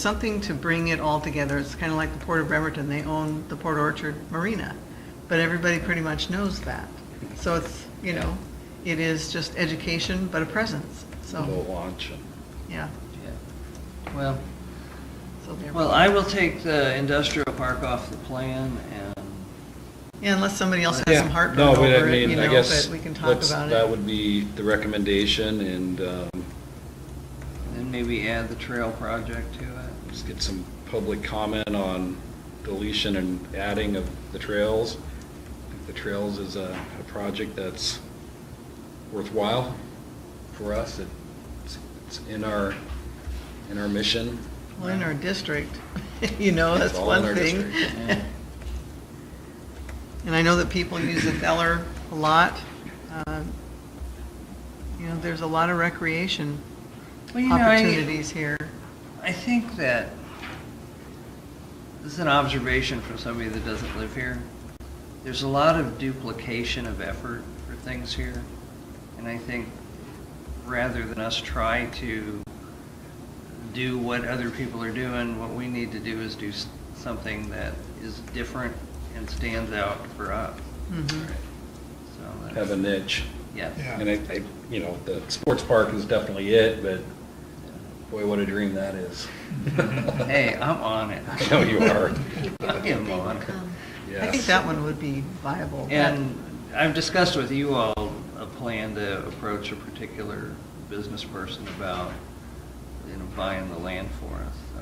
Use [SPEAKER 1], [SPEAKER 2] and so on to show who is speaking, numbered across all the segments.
[SPEAKER 1] something to bring it all together. It's kind of like the Port of Bremerton, they own the Port Orchard Marina, but everybody pretty much knows that. So it's, you know, it is just education, but a presence, so,
[SPEAKER 2] Boat launch and.
[SPEAKER 1] yeah.
[SPEAKER 3] Yeah. Well,
[SPEAKER 1] so there.
[SPEAKER 3] well, I will take the industrial park off the plan and,
[SPEAKER 1] Yeah, unless somebody else has
[SPEAKER 2] Yeah.
[SPEAKER 1] some heartburn
[SPEAKER 2] No, but I
[SPEAKER 1] over it,
[SPEAKER 2] mean,
[SPEAKER 1] you
[SPEAKER 2] I
[SPEAKER 1] know,
[SPEAKER 2] guess
[SPEAKER 1] but we can talk
[SPEAKER 2] let's-
[SPEAKER 1] about
[SPEAKER 2] That
[SPEAKER 1] it.
[SPEAKER 2] would be the recommendation and, um,
[SPEAKER 3] and maybe add the trail project to it.
[SPEAKER 2] Just get some public comment on deletion and adding of the trails. I think The trails is a, a project that's worthwhile for us. It's, it's in our, in our mission.
[SPEAKER 1] Well, in our district, you know, that's
[SPEAKER 2] It's all in
[SPEAKER 1] one
[SPEAKER 2] our
[SPEAKER 1] thing.
[SPEAKER 2] district.
[SPEAKER 3] Yeah.
[SPEAKER 1] And I know that people use Eller a lot. Uh, You know, there's a lot of recreation
[SPEAKER 3] Well, you know, I-
[SPEAKER 1] opportunities here.
[SPEAKER 3] I think that, this is an observation from somebody that doesn't live here. There's a lot of duplication of effort for things here. And I think rather than us try to do what other people are doing, what we need to do is do s- something that is different and stands out for us.
[SPEAKER 1] Mhm.
[SPEAKER 3] So that's-
[SPEAKER 2] Have a niche.
[SPEAKER 3] Yes.
[SPEAKER 4] Yeah.
[SPEAKER 2] And I, I, you know, the sports park is definitely it, but boy, what a dream that is.
[SPEAKER 1] Mm-hmm.
[SPEAKER 3] Hey, I'm on it.
[SPEAKER 2] I know you are.
[SPEAKER 3] I am on it.
[SPEAKER 1] I think
[SPEAKER 2] Yes.
[SPEAKER 1] that one would be viable.
[SPEAKER 3] And I've discussed with you all a plan to approach a particular business person about, you know, buying the land for us, so.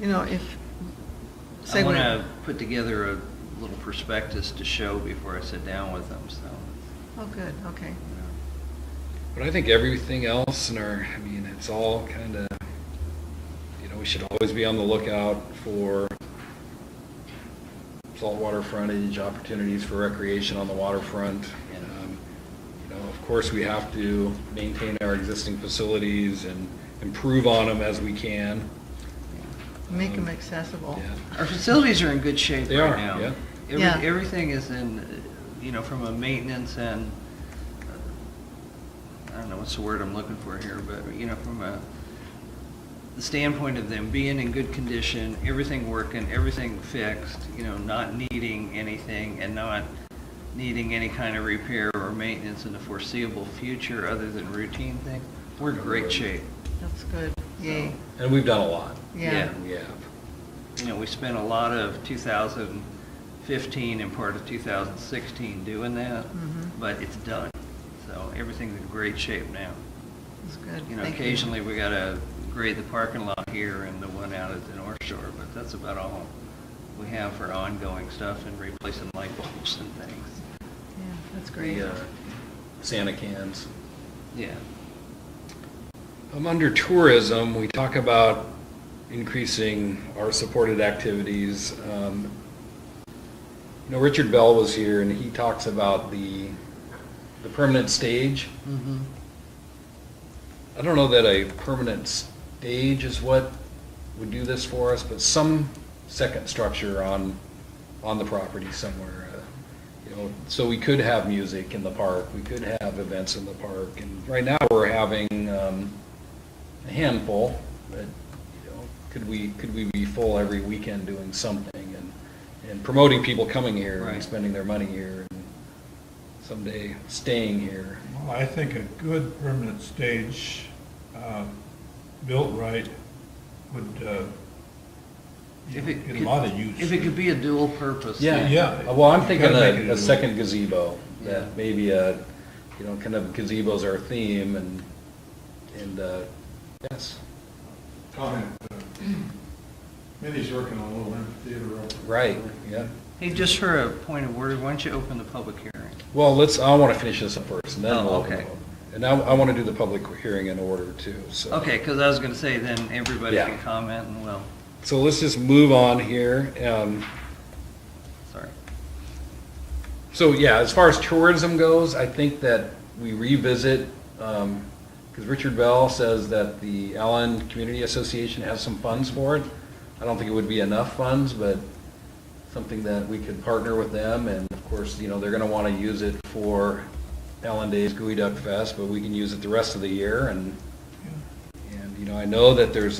[SPEAKER 1] You know, if.
[SPEAKER 3] And I
[SPEAKER 1] segue-
[SPEAKER 3] want to put together a little prospectus to show before I sit down with them, so.
[SPEAKER 1] Oh, good, okay.
[SPEAKER 3] you know.
[SPEAKER 2] But I think everything else in our, I mean, it's all kind of, you know, we should always be on the lookout for saltwater frontage, opportunities for recreation on the waterfront.
[SPEAKER 3] Yeah.
[SPEAKER 2] Um, You know, of course, we have to maintain our existing facilities and improve on them as we can.
[SPEAKER 1] Make them
[SPEAKER 2] Um,
[SPEAKER 1] accessible.
[SPEAKER 2] Yeah.
[SPEAKER 3] Our facilities are in good shape
[SPEAKER 2] They
[SPEAKER 3] right
[SPEAKER 2] are,
[SPEAKER 3] now.
[SPEAKER 2] yeah.
[SPEAKER 3] Every-
[SPEAKER 1] Yeah.
[SPEAKER 3] Everything is in, uh, you know, from a maintenance and, uh, I don't know what's the word I'm looking for here, but, you know, from a, the standpoint of them being in good condition, everything working, everything fixed, you know, not needing anything and not needing any kind of repair or maintenance in the foreseeable future other than routine things, we're in great shape.
[SPEAKER 1] That's good, yay,
[SPEAKER 2] And we've done a lot.
[SPEAKER 1] yeah.
[SPEAKER 3] yeah.
[SPEAKER 2] We have.
[SPEAKER 3] you know, we spent a lot of 2015 and part of 2016 doing that,
[SPEAKER 1] Mhm.
[SPEAKER 3] but it's done. So everything's in great shape now.
[SPEAKER 1] That's good.
[SPEAKER 3] You know,
[SPEAKER 1] Thank
[SPEAKER 3] occasionally we gotta grade the parking lot here and the one out at the North Shore, but that's about all we have for ongoing stuff and replacing light bulbs and things.
[SPEAKER 1] Yeah, that's great.
[SPEAKER 2] the uh, Santa cans.
[SPEAKER 3] Yeah.
[SPEAKER 2] Um, under tourism, we talk about increasing our supported activities. Um, You know, Richard Bell was here and he talks about the, the permanent stage.
[SPEAKER 3] Mm-hmm.
[SPEAKER 2] I don't know that a permanent stage is what would do this for us, but some second structure on, on the property somewhere. uh, You know, so we could have music in the park, we could have events in the park, and right now we're having, um, a handful, but, you know, could we, could we be full every weekend doing something and, and promoting people coming here and
[SPEAKER 3] Right.
[SPEAKER 2] spending their money here and someday staying here?
[SPEAKER 4] Well, I think a good permanent stage, um, built right, would, uh, you
[SPEAKER 3] If
[SPEAKER 4] know,
[SPEAKER 3] it
[SPEAKER 4] get
[SPEAKER 3] could-
[SPEAKER 4] a lot of use.
[SPEAKER 3] If it could be a dual purpose.
[SPEAKER 2] Yeah,
[SPEAKER 3] thing.
[SPEAKER 2] yeah.
[SPEAKER 4] Yeah.
[SPEAKER 2] Uh, Well, I'm thinking
[SPEAKER 4] You gotta make it
[SPEAKER 2] a,
[SPEAKER 4] a-
[SPEAKER 2] a second gazebo,
[SPEAKER 3] Yeah.
[SPEAKER 2] that maybe a, you know, kind of gazebo's our theme and, and, uh, yes,
[SPEAKER 5] comment. uh, Mindy's working on a little amphitheater up.
[SPEAKER 2] right, yeah.
[SPEAKER 3] Hey, just for a point of order, why don't you open the public hearing?
[SPEAKER 2] Well, let's, I want to finish this up first and then
[SPEAKER 3] Oh,
[SPEAKER 2] we'll. open
[SPEAKER 3] okay.
[SPEAKER 2] it up. And now I want to do the public hearing in order too, so.
[SPEAKER 3] Okay, because I was gonna say then everybody
[SPEAKER 2] Yeah.
[SPEAKER 3] can comment and well,
[SPEAKER 2] So let's just move on here. Um,
[SPEAKER 3] sorry.
[SPEAKER 2] So yeah, as far as tourism goes, I think that we revisit, because Richard Bell says that the Allen Community Association has some funds for it. I don't think it would be enough funds, but something that we could partner with them, and of course, you know, they're gonna want to use it for Allen Days Gooey Duck Fest, but we can use it the rest of the year, and,
[SPEAKER 4] Yeah.
[SPEAKER 2] and, you know, I know that there's